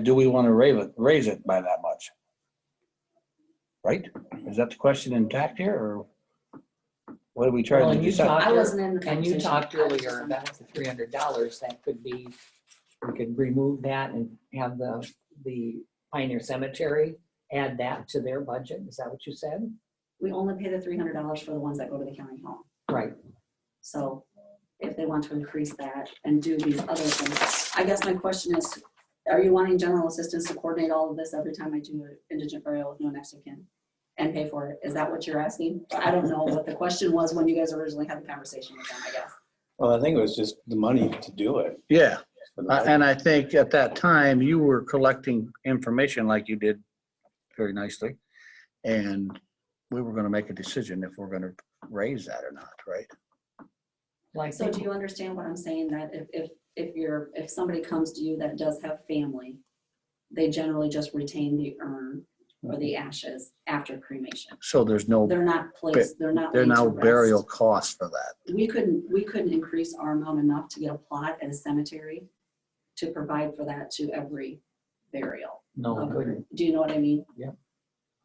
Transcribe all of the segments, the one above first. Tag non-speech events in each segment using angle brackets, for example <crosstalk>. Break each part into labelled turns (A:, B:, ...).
A: do we want to raise it, raise it by that much? Right? Is that the question intact here or what are we
B: Well,
A: trying to
B: and you
A: decide?
B: talked
C: I
B: ear-
C: wasn't in the
B: And you
C: conversation.
B: talked
C: I was just
B: earlier
C: on-
B: about the three hundred dollars, that could be, we could remove that and have the, the Pioneer Cemetery add that to their budget, is that what you said?
C: We only pay the three hundred dollars for the ones that go to the county home.
B: Right,
C: So if they want to increase that and do these other things, I guess my question is, are you wanting general assistance to coordinate all of this every time I do an indigent burial with no next of kin? And pay for it? Is that what you're asking? I don't know what the question was when you guys originally had the conversation with them, I guess.
D: Well, I think it was just the money to do it.
E: Yeah, I- Uh, and I think at that time, you were collecting information like you did very nicely. And we were going to make a decision if we're going to raise that or not, right?
B: like,
C: So do you understand what I'm saying? That if, if, if you're, if somebody comes to you that does have family, they generally just retain the urn or the ashes after cremation.
E: So there's no,
C: They're not placed, they're not.
E: there are
C: laid to
E: no
C: rest.
E: burial costs for that.
C: we couldn't, we couldn't increase our amount enough to get a plot at a cemetery to provide for that to every burial. Um,
B: no, it wouldn't.
C: Do you know what I mean?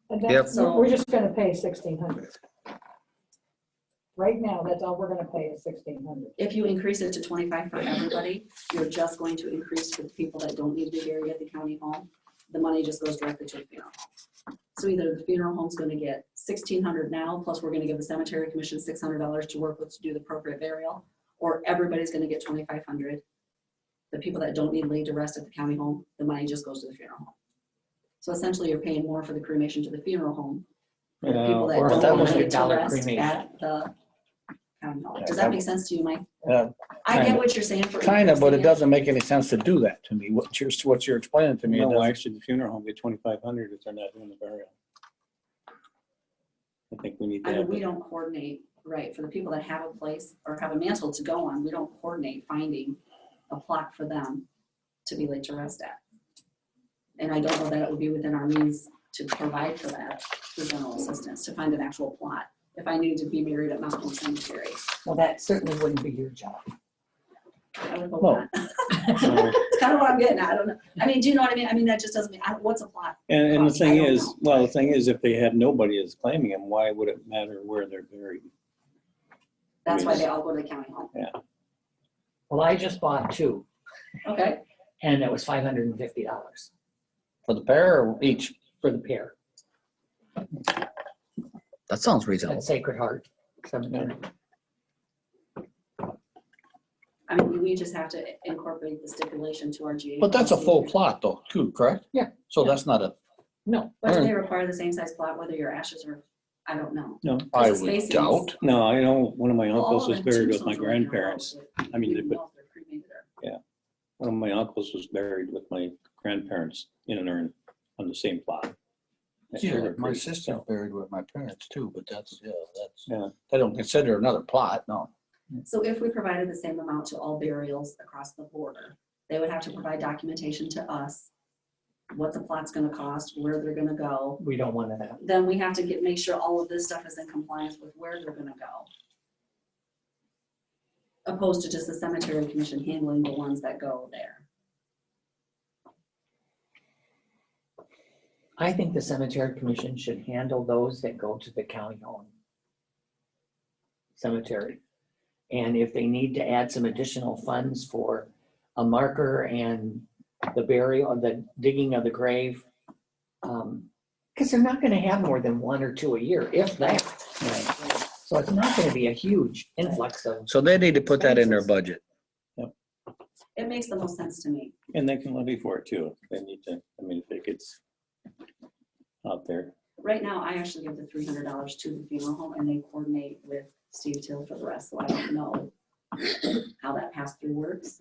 F: But that's,
C: Yep.
F: we're just gonna pay sixteen hundred. Right now, that's all we're gonna pay is sixteen hundred.
C: If you increase it to twenty-five for everybody, you're just going to increase for the people that don't need to be buried at the county home. The money just goes directly to the funeral home. So either the funeral home's gonna get sixteen hundred now, plus we're gonna give the cemetery commission six hundred dollars to work with to do the appropriate burial, or everybody's gonna get twenty-five hundred. The people that don't need laid to rest at the county home, the money just goes to the funeral home. So essentially, you're paying more for the cremation to the funeral home,
D: You
A: Uh,
D: know,
C: people that
B: or
C: don't
B: that
C: want
B: was
C: to
B: your
C: get to
B: dollar
C: rest
B: cremation.
C: at the county home.
A: Yeah,
C: Does
A: that-
C: that make sense to you, Mike?
A: Uh,
C: I get
A: kinda.
C: what you're saying for.
A: Kind of, but it
C: increasing
A: doesn't make any sense to do that to me. What you're, what you're explaining to me. it
D: No, why
A: doesn't-
D: should the funeral home get twenty-five hundred if they're not doing the burial? I think we need to
C: I mean,
D: have,
C: we don't coordinate, right, for the people that have a place or have a mantle to go on, we don't coordinate finding a plot for them to be laid to rest at. And I don't know that it would be within our means to provide for that, through general assistance, to find an actual plot. If I needed to be married at Mount Hope Cemetery,
B: Well, that certainly wouldn't be your job.
C: I would hope
A: Well,
C: not. <laughs>
D: so-
C: It's kind of what I'm getting at, I don't know. I mean, do you know what I mean? I mean, that just doesn't mean, I- what's a plot?
D: <laughs> and, and the
C: I
D: thing
C: don't
D: is,
C: know.
D: well, the thing is, if they had nobody that's claiming them, why would it matter where they're buried?
C: That's why they all go to the county home.
B: Well, I just bought two,
C: Okay,
B: and it was five hundred and fifty dollars
A: For the pair or each?
B: for the pair,
E: That sounds
B: at
E: reasonable.
B: Sacred Heart Cemetery.
C: I mean, we just have to incorporate the stipulation to our GA.
A: But that's a full
C: policy.
A: plot though, too, correct?
B: Yeah.
A: So that's not a,
B: No,
C: But do they require the same size plot, whether your ashes are, I don't know.
D: No,
A: I
C: There's a
A: would
C: spacing.
A: doubt.
D: no, I know, one of my
C: All
D: uncles
C: of
D: was
C: the
D: buried with my
C: tombstones are in their
D: grandparents.
C: house.
D: I mean,
C: We
D: they
C: don't
D: put-
C: know if they're cremated or-
D: One of my uncles was buried with my grandparents in an urn on the same plot. At
A: Yeah,
D: Sugar
A: my
D: Creek.
A: sister buried with my parents too, but that's, yeah,
D: Yeah.
A: that's, I don't consider another plot, no.
C: So if we provided the same amount to all burials across the border, they would have to provide documentation to us, what the plot's gonna cost, where they're gonna go.
B: we don't want that.
C: Then we have to get, make sure all of this stuff is in compliance with where they're gonna go. Opposed to just the cemetery commission handling the ones that go there.
B: I think the cemetery commission should handle those that go to the county owned cemetery. And if they need to add some additional funds for a marker and the burial, the digging of the grave. Because they're not gonna have more than one or two a year, if that. So it's not gonna be a huge influx of,
E: So they need to put that in their budget.
C: It makes the most sense to me.
D: And they can levy for it too. if They need to, I mean, if it gets out there.
C: Right now, I actually give the three hundred dollars to the funeral home and they coordinate with Steve Till for the rest, so I don't know how that pass through works.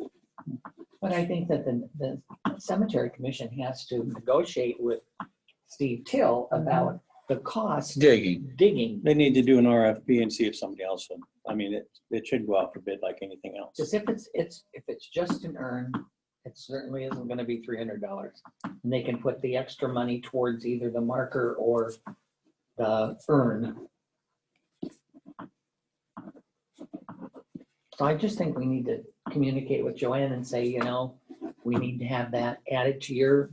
B: but I think that the, the cemetery commission has to negotiate with Steve Till about the cost
E: Digging.
B: digging
D: They need to do an RFP and see if somebody else will. I mean, it, it should go out for bid like anything else.
B: Just if it's, it's, if it's just an urn, it certainly isn't gonna be three hundred dollars. And they can put the extra money towards either the marker or the urn. So I just think we need to communicate with Joanne and say, you know, we need to have that added to your